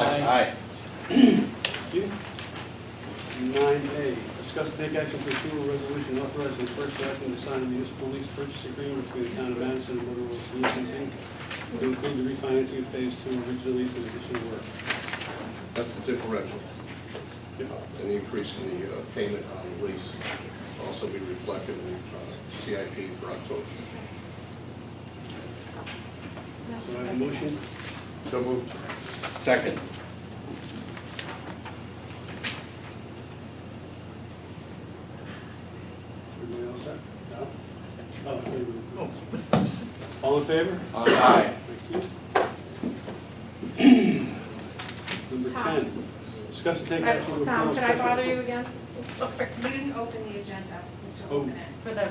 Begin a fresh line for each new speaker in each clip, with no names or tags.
Aye.
Nine A, discuss and take action to approve a resolution authorizing the first selectman to sign a municipal lease purchase agreement between the town of Madison and Motorola Solutions, Inc. to include the refinancing of phase two of original lease and additional work.
That's the differential,
Yeah.
an increase in the uh, payment on the lease, also be reflected in uh, CIP for October.
So I have a motion,
So moved.
Second.
everybody else set? No? Oh, wait a minute. All in favor?
Aye.
Thank you. Number
Tom.
ten, discuss and take action to
I-
approve.
Tom, can I
special-
bother you again?
You didn't open the agenda. You have
Oh.
to open it.
For the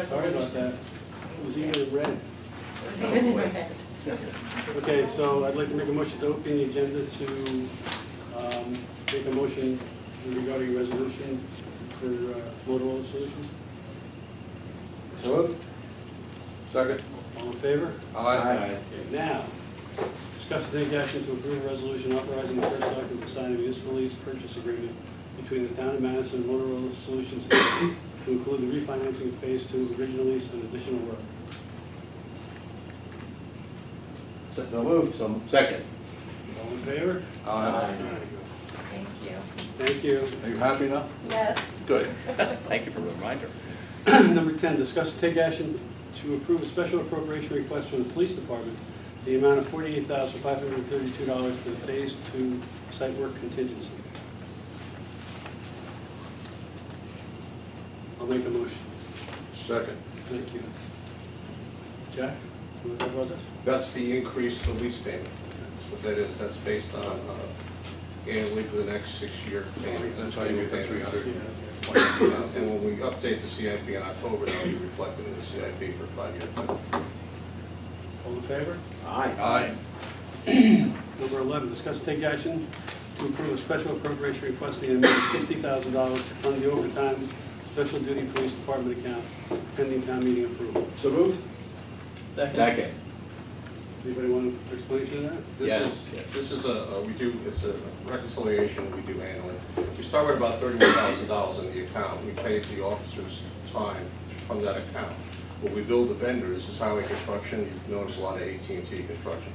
re-
Sorry about
resolution.
that, it was even red.
It's even in my head.
Okay, so I'd like to make a motion to open the agenda to um, make a motion regarding resolution for uh, Motorola Solutions.
So moved. Second.
All in favor?
Aye.
Okay, now, discuss and take action to approve a resolution authorizing the first selectman to sign a municipal lease purchase agreement between the town of Madison and Motorola Solutions to include the refinancing of phase two of original lease and additional work.
So moved. So Second.
All in favor?
Aye.
Thank you.
Thank you.
Are you happy now?
Yes.
Good.
Thank you for the reminder.
Number 10, discuss and take action to approve a special appropriation request from the police department, the amount of $48,532 for the Phase 2 site work contingency. I'll make a motion.
Second.
Thank you. Jack, you want to talk about this?
That's the increase to lease payment. That's what that is, that's based on uh, annually for the next six-year payment. That's how you get the three hundred. And when we update the CIP in October, that'll be reflected in the CIP for five-year. payment.
All in favor?
Aye.
Number 11, discuss and take action to approve a special appropriation request in the amount of $50,000 to fund the overtime special duty police department account pending town meeting approval.
So moved.
Second.
Anybody want to explain to that?
This
Yes,
is,
yes.
this is a, a- we do, it's a reconciliation we do annually. We start with about thirty-one thousand dollars in the account, we pay the officers' time from that account. What we bill the vendors is highway construction, you've noticed a lot of at and T construction.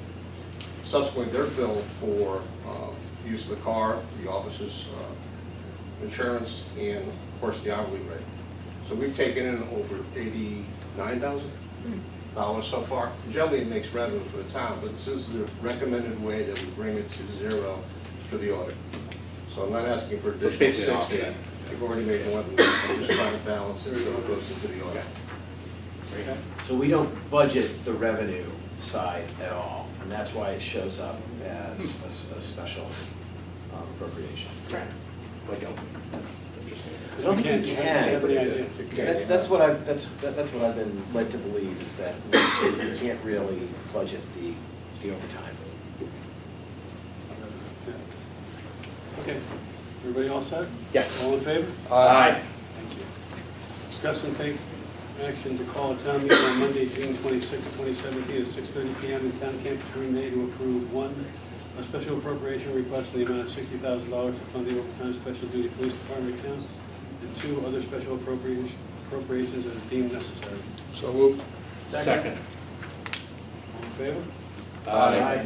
Subsequently, they're billed for um, use of the car, the officers' uh, insurance, and of course, the hourly rate. So we've taken in over eighty-nine thousand dollars so far. Generally, it makes revenue for the town, but this is the recommended way that we bring it to zero for the audit. So I'm not asking for
So it's
additional
basically an
sixty.
offset.
We've already made one, I'm just trying to balance it so it goes into the audit.
Okay.
So we don't budget the revenue side at all, and that's why it shows up as a s- a special um, appropriation.
Correct.
But don't.
I don't think you
Have any
can.
idea?
That's, that's what I've, that's, that- that's what I've been led to believe, is that you can't really budget the, the overtime.
Yeah. Okay, everybody all set?
Yes.
All in favor?
Aye.
Thank you. Discuss and take action to call a town meeting on Monday, June 26, 2017, at 6:30 PM in town campus room A to approve, one, a special appropriation request in the amount of $60,000 to fund the overtime special duty police department accounts, and two, other special appropriations appropriations as deemed necessary.
So moved.
Second.
All in favor?
Aye.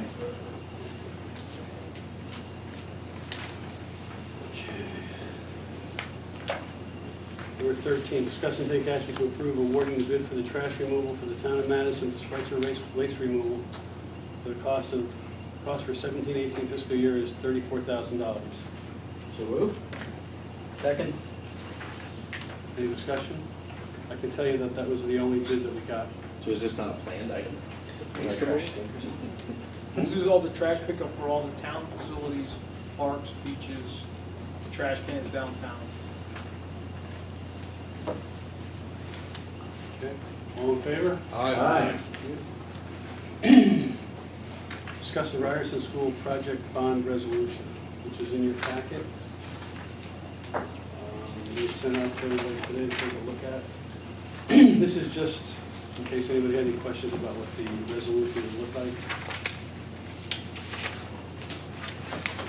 Number 13, discuss and take action to approve awarding the bid for the trash removal for the town of Madison, to Schweitzer waste- waste removal. The cost of, cost for 17-18 fiscal year is $34,000.
So moved?
Second.
Any discussion? I can tell you that that was the only bid that we got.
So is this not a planned item?
This is all the trash pickup for all the town facilities, parks, beaches, trash cans downtown.
Okay. All in favor?
Aye.
Discuss the Ryerson School project bond resolution, which is in your packet. Um, We sent out to everybody today to take a look at. This is just in case anybody had any questions about what the resolution would look like.